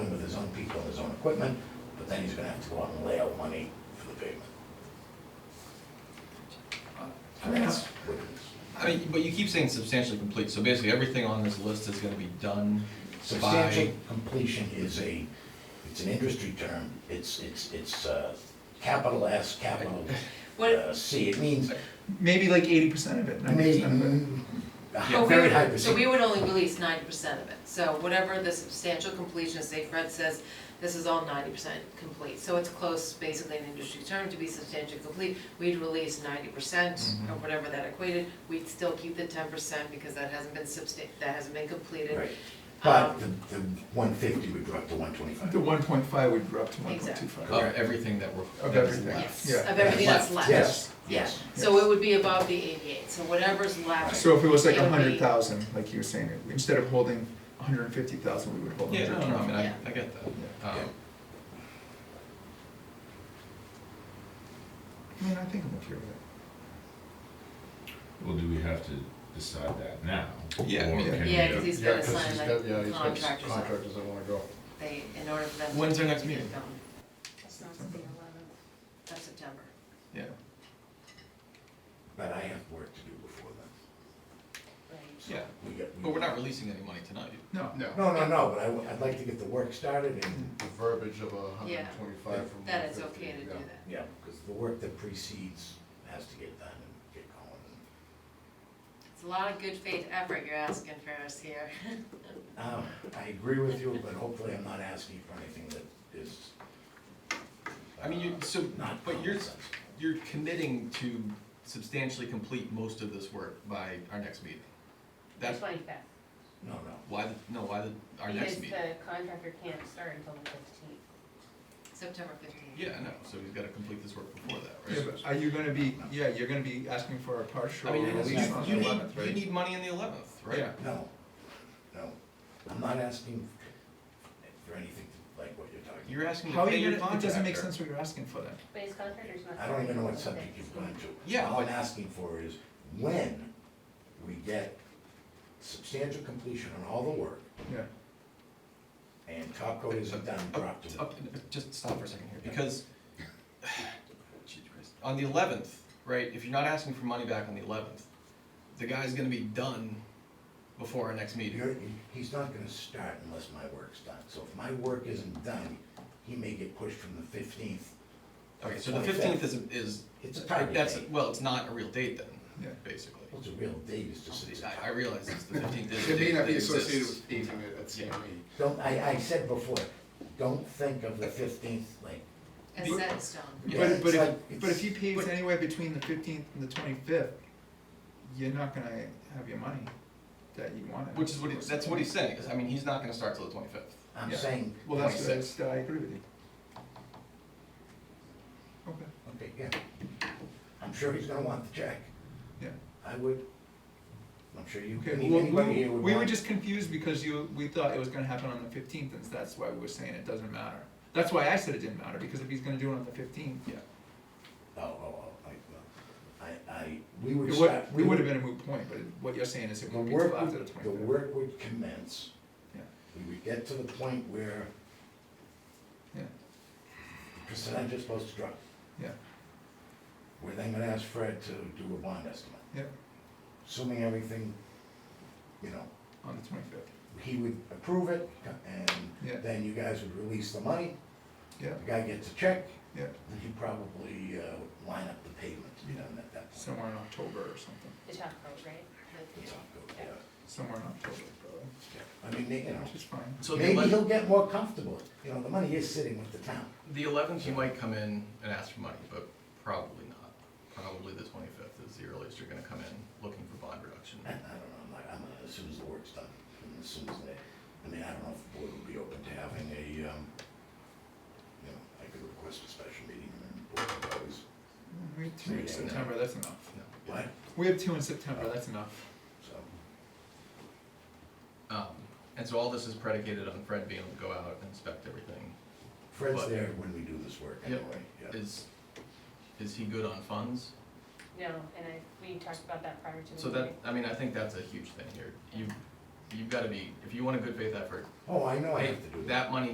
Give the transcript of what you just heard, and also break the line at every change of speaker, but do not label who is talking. own people and his own equipment, but then he's gonna have to go out and lay out money for the pavement. And that's what it is.
I mean, but you keep saying substantially complete, so basically everything on this list is gonna be done by,
Substantial completion is a, it's an industry term, it's, it's, it's, uh, capital S, capital
What-
uh, C, it means,
Maybe like eighty percent of it, ninety
maybe,
percent of it.
But we
very
would-
high
So we
percentage.
would only release ninety percent of it, so whatever the substantial completion, say Fred says, this is all ninety percent complete, so it's close, basically an industry term, to be substantially complete, we'd release ninety percent,
Mm-hmm.
or
Mhm.
whatever that equated, we'd still keep the ten percent, because that hasn't been substan, that hasn't been completed.
Right. But
Um,
the, the one fifty would drop to one
The
twenty-five.
one point five would drop to one point two
Exactly.
five.
of everything that we're.
Of
that is
everything.
left.
Yes,
Yeah.
of everything that's
Left.
left.
Yes,
Yeah,
yes.
so it would be above the eighty-eight, so whatever's left.
So if it was like
It
a
would be-
hundred thousand, like you were saying, instead of holding a hundred and fifty thousand, we would hold
Yeah,
hundred
no,
and
no, I
twenty.
mean, I,
Yeah.
I get that.
Yeah.
Um,
I mean, I think I'm okay with it.
Well, do we have to decide that now?
Yeah, I
Or
mean-
can we,
Yeah,
uh,
because he's
Yeah,
gonna
'cause
sign
he's
like
got- yeah, he's got s-
contractors, up.
Contractors that wanna go.
they, in order for them. to-
When's our next meeting?
It's not the eleventh.
Of September.
Yeah,
But I have work to do before then.
Right.
yeah,
We got- we-
but we're not releasing any money tonight.
No.
No,
No, no, no, but I, w- I'd like to get the work started and
the verbiage of a hundred
Yeah.
and twenty-five from one fifty.
That it's okay to do that.
Yeah, because the work that precedes has to get done and get going.
It's a lot of good faith effort you're asking for us here.
Um, I agree with you, but hopefully I'm not asking for anything that is.
I mean, you,
uh,
so,
Not.
but you're,
common sense.
you're committing to substantially complete most of this work by our next meeting. That's
Twenty-fifth.
No, no,
why, the- no, why the- our next meeting.
Because the contractor can't start until the fifteenth.
September fifteenth.
Yeah, I know, so he's gotta complete this work before that,
Yeah,
right?
but are you gonna be, yeah, you're gonna be asking for a
I
partial
mean,
release
you,
on the
you need,
eleventh, right?
you need money in the eleventh, right?
Yeah.
no, no. I'm not asking for anything like what you're talking.
You're asking
How
to
are
pay
you
your
gonna, it
contractor.
doesn't make sense what you're asking for then.
But his contractor's not.
I don't even know what
starting
subject you've
until the
gone to.
Yeah,
All I'm
but-
asking for is when we get substantial completion on all the work
Yeah.
and top coat isn't done, drop to.
Uh, uh, Just stop for a second here, because, Jesus Christ. on the eleventh, right, if you're not asking for money back on the eleventh, the guy's gonna be done before our next meeting.
You're, he's not gonna start unless my work's done, so if my work isn't done, he may get pushed from the fifteenth.
Okay, so the fifteenth is, is,
It's a target
that's,
date.
well, it's not a real date
Yeah.
then, basically.
What's a real date, it's just, it's a
I, I
target.
realize it's the fifteenth is a
It may
date
not
that
be associated
exists.
with painting it at E.
Yeah.
CME.
Don't, I, I said before, don't think of the fifteenth like,
As
But-
set in stone.
Yeah.
But, but
It's
if,
like-
but if he pays
but-
anywhere between the fifteenth and the twenty-fifth, you're not gonna have your money that you wanted.
Which is what, he- that's what he's saying, 'cause, I mean, he's not gonna start till the twenty-fifth.
I'm
Yeah.
saying,
Well, that's,
26.
that's, I agree with you. Okay,
okay, yeah. I'm sure he's gonna want the check,
yeah.
I would, I'm sure you,
Okay, well,
anybody
we,
here would
we were
want-
just confused because you, we thought it was gonna happen on the fifteenth, and that's why we were saying it doesn't matter. That's why I said it didn't matter, because if he's gonna do it on the fifteenth,
Yeah.
Oh, oh, oh, I, well, I, I, we would
it
start.
would,
we
it would have been a moot point, but it- what you're saying is it
The
won't be till
work,
after the
would- the
twenty-fifth.
work would commence,
Yeah,
we would get to the point where
yeah,
percentage is supposed to drop.
yeah,
We're then gonna ask Fred to do a bond estimate,
yeah,
assuming everything, you know,
on the twenty-fifth,
he would approve it,
Yeah.
and then you guys would release the money,
yeah,
the guy gets a check,
yeah,
then you probably, uh, line up the pavement, you know, and at that point,
somewhere in October or something,
The top coat, right?
it's all good, yeah.
somewhere in October, probably,
I mean, they- you
which is
know,
fine.
So the
maybe
eleventh,
he'll get more comfortable, you know, the money is sitting with the town.
The eleventh, you might come in and ask for money, but probably not. Probably the twenty-fifth is the earliest you're gonna come in looking for bond reduction.
I I don't know, I'm like, I'm, uh, as soon as the work's done, and as soon as they, I mean, I don't know if the board would be open to having a, um, you know, I could request a special meeting and then the board would always,
We have two in September, that's enough.
No.
what,
We have two in September, that's enough.
so.
Um, and so all this is predicated on Fred being able to go out and inspect everything.
Fred's
But-
there when we do this work
Yep.
anyway, yeah.
Is, is he good on funds?
No, and I, we talked about that prior to the
So
meeting.
that, I mean, I think that's a huge thing here. You, you've gotta be, if you want a good faith effort,
Oh, I know I
hey,
have to do that.
that money